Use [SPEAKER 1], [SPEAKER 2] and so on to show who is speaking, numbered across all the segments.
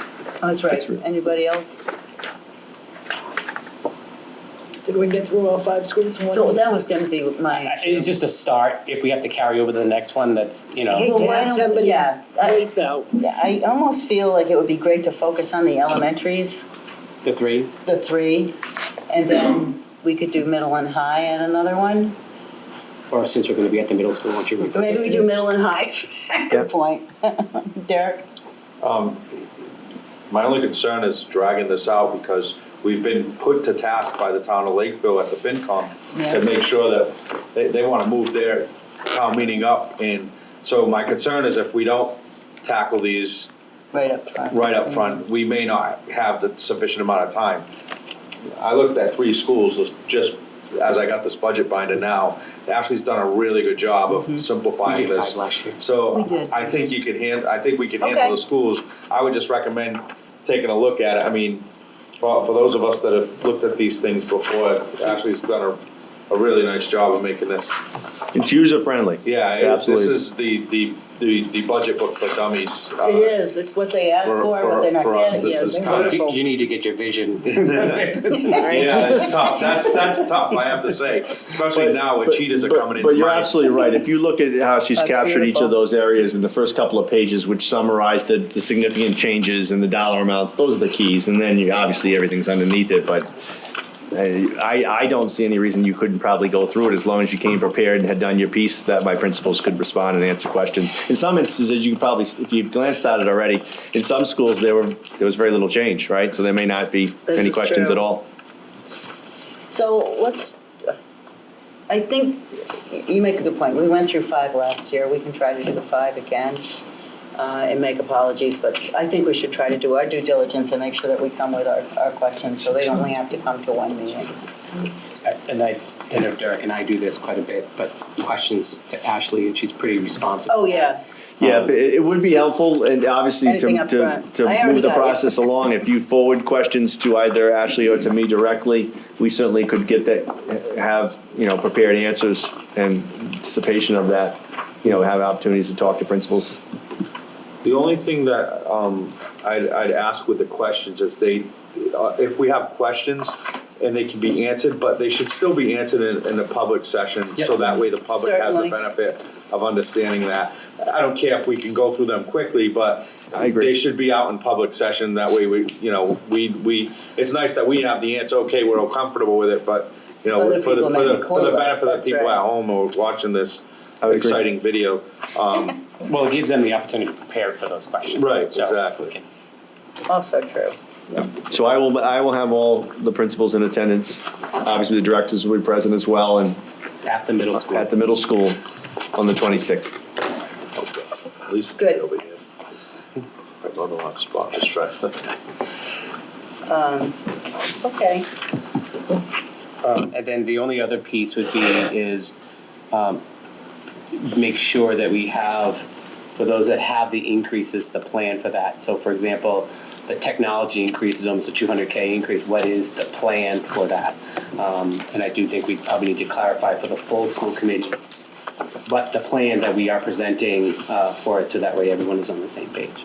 [SPEAKER 1] Oh, that's right.
[SPEAKER 2] That's right.
[SPEAKER 1] Anybody else?
[SPEAKER 3] Did we get through all five schools in one?
[SPEAKER 1] So
[SPEAKER 3] week?
[SPEAKER 1] that was gonna be my.
[SPEAKER 4] It's just a start, if we have to carry over to the next one, that's, you know.
[SPEAKER 3] Hey,
[SPEAKER 1] Well,
[SPEAKER 3] to
[SPEAKER 1] why don't-
[SPEAKER 3] have somebody-
[SPEAKER 1] Yeah, I,
[SPEAKER 3] Wait, though.
[SPEAKER 1] I almost feel like it would be great to focus on the elementaries,
[SPEAKER 4] The three?
[SPEAKER 1] the three, and then we could do middle and high at another one.
[SPEAKER 4] Or since we're gonna be at the middle school, why don't you?
[SPEAKER 1] Maybe we do middle and high. Good point. Derek?
[SPEAKER 5] My only concern is dragging this out because we've been put to task by the town of Lakeville at the FinCom
[SPEAKER 1] Yeah.
[SPEAKER 5] to make sure that they, they wanna move their town meeting up. And so my concern is if we don't tackle these
[SPEAKER 1] Right up front.
[SPEAKER 5] right up front, we may not have the sufficient amount of time. I looked at three schools just as I got this budget binder now. Ashley's done a really good job of simplifying
[SPEAKER 4] Mm-hmm. We did
[SPEAKER 5] this.
[SPEAKER 4] five last year.
[SPEAKER 1] We
[SPEAKER 5] So
[SPEAKER 1] did.
[SPEAKER 5] I think you can hand, I think we can handle
[SPEAKER 1] Okay.
[SPEAKER 5] the schools. I would just recommend taking a look at it. I mean, for, for those of us that have looked at these things before, Ashley's done a, a really nice job of making this.
[SPEAKER 2] It's user-friendly.
[SPEAKER 5] Yeah, it- this
[SPEAKER 2] Absolutely.
[SPEAKER 5] is the, the, the, the budget book for dummies. uh,
[SPEAKER 1] It is, it's what they asked
[SPEAKER 5] For-
[SPEAKER 1] for, but
[SPEAKER 5] for-
[SPEAKER 1] they're not
[SPEAKER 5] for us,
[SPEAKER 1] getting
[SPEAKER 5] this
[SPEAKER 1] it.
[SPEAKER 5] is
[SPEAKER 1] They're
[SPEAKER 5] kind of-
[SPEAKER 1] wonderful.
[SPEAKER 4] You, you need to get your vision.
[SPEAKER 5] Yeah, that's tough. That's that's tough. I have to say, especially now when cheetahs are
[SPEAKER 2] But-
[SPEAKER 5] coming into
[SPEAKER 2] But you're
[SPEAKER 5] my-
[SPEAKER 2] absolutely right. If you look at how she's
[SPEAKER 1] That's
[SPEAKER 2] captured each
[SPEAKER 1] beautiful.
[SPEAKER 2] of those areas in the first couple of pages, which summarize the, the significant changes and the dollar amounts, those are the keys. And then you, obviously everything's underneath it, but uh, I, I don't see any reason you couldn't probably go through it as long as you came prepared and had done your piece that my principals could respond and answer questions. In some instances, you could probably, if you've glanced at it already, in some schools, there were, there was very little change, right? So there may not be
[SPEAKER 1] This
[SPEAKER 2] any
[SPEAKER 1] is
[SPEAKER 2] questions
[SPEAKER 1] true.
[SPEAKER 2] at all.
[SPEAKER 1] So let's, I think, y- you make a good point. We went through five last year. We can try to do the five again uh, and make apologies, but I think we should try to do our due diligence and make sure that we come with our, our questions, so they only have to come to one meeting.
[SPEAKER 4] And I, I know Derek and I do this quite a bit, but questions to Ashley, and she's pretty responsive.
[SPEAKER 1] Oh, yeah.
[SPEAKER 2] Yeah, but it it would be helpful, and obviously to,
[SPEAKER 1] Anything up
[SPEAKER 2] to,
[SPEAKER 1] front. I
[SPEAKER 2] to
[SPEAKER 1] already
[SPEAKER 2] move the
[SPEAKER 1] got it.
[SPEAKER 2] process along, if you forward questions to either Ashley or to me directly, we certainly could get that, have, you know, prepared answers and anticipation of that, you know, have opportunities to talk to principals.
[SPEAKER 5] The only thing that um, I'd, I'd ask with the questions is they, uh, if we have questions and they can be answered, but they should still be answered in, in the public session.
[SPEAKER 4] Yep.
[SPEAKER 5] So that way the public has the
[SPEAKER 1] Certainly.
[SPEAKER 5] benefit of understanding that. I don't care if we can go through them quickly, but
[SPEAKER 2] I agree.
[SPEAKER 5] they should be out in public session. That way we, you know, we, we, it's nice that we have the answer, okay, we're all comfortable with it, but, you know,
[SPEAKER 1] Other
[SPEAKER 5] for the,
[SPEAKER 1] people
[SPEAKER 5] for
[SPEAKER 1] may
[SPEAKER 5] the,
[SPEAKER 1] be
[SPEAKER 5] for the
[SPEAKER 1] clueless,
[SPEAKER 5] benefit of
[SPEAKER 1] that's
[SPEAKER 5] the people
[SPEAKER 1] right.
[SPEAKER 5] at home who are watching this
[SPEAKER 2] I would agree.
[SPEAKER 5] exciting video.
[SPEAKER 4] Well, it gives them the opportunity to prepare for those questions.
[SPEAKER 5] Right,
[SPEAKER 4] So-
[SPEAKER 5] exactly.
[SPEAKER 1] Also true.
[SPEAKER 2] So I will, I will have all the principals in attendance, obviously the directors will be present as well, and
[SPEAKER 4] At the middle school.
[SPEAKER 2] at the middle school on the twenty-sixth.
[SPEAKER 5] At least
[SPEAKER 1] Good.
[SPEAKER 5] over here. I'm on the wrong spot, just trying to.
[SPEAKER 1] Okay.
[SPEAKER 4] Um, and then the only other piece would be is, um, make sure that we have, for those that have the increases, the plan for that. So for example, the technology increase is almost a two hundred K increase, what is the plan for that? Um, and I do think we probably need to clarify for the full school committee, what the plan that we are presenting, uh, for it, so that way everyone is on the same page.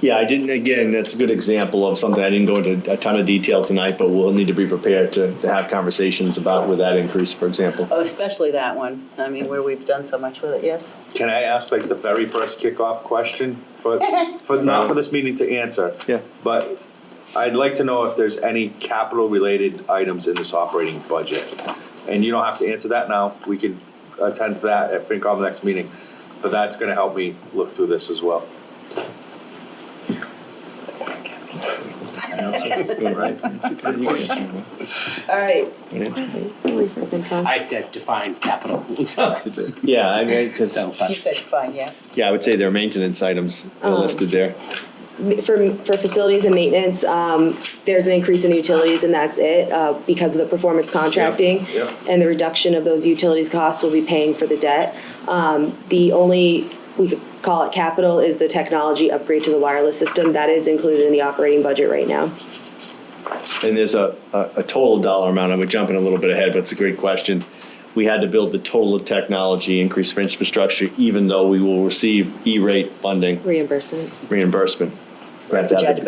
[SPEAKER 2] Yeah, I didn't, again, that's a good example of something I didn't go into a ton of detail tonight, but we'll need to be prepared to, to have conversations about with that increase, for example.
[SPEAKER 1] Oh, especially that one. I mean, where we've done so much with it, yes?
[SPEAKER 5] Can I ask like the very first kickoff question for, for, not for this meeting to answer?
[SPEAKER 2] Yeah.
[SPEAKER 5] But I'd like to know if there's any capital related items in this operating budget. And you don't have to answer that now, we can attend to that at FinCom next meeting, but that's gonna help me look through this as well.
[SPEAKER 1] All right.
[SPEAKER 4] I said define capital, so,
[SPEAKER 2] Yeah, I mean, because,
[SPEAKER 4] so, but-
[SPEAKER 1] You said fine, yeah.
[SPEAKER 2] yeah, I would say there are maintenance items are listed there.
[SPEAKER 6] for, for facilities and maintenance, um, there's an increase in utilities and that's it, uh, because of the performance contracting.
[SPEAKER 5] Yep, yep.
[SPEAKER 6] And the reduction of those utilities costs will be paying for the debt. Um, the only, we could call it capital, is the technology upgrade to the wireless system. That is included in the operating budget right now.
[SPEAKER 2] And there's a, a, a total dollar amount, I'm jumping a little bit ahead, but it's a great question. We had to build the total of technology, increase for infrastructure, even though we will receive E-rate funding
[SPEAKER 6] Reimbursement.
[SPEAKER 2] reimbursement. We have to
[SPEAKER 1] But you
[SPEAKER 2] have
[SPEAKER 1] had to
[SPEAKER 2] a-
[SPEAKER 1] build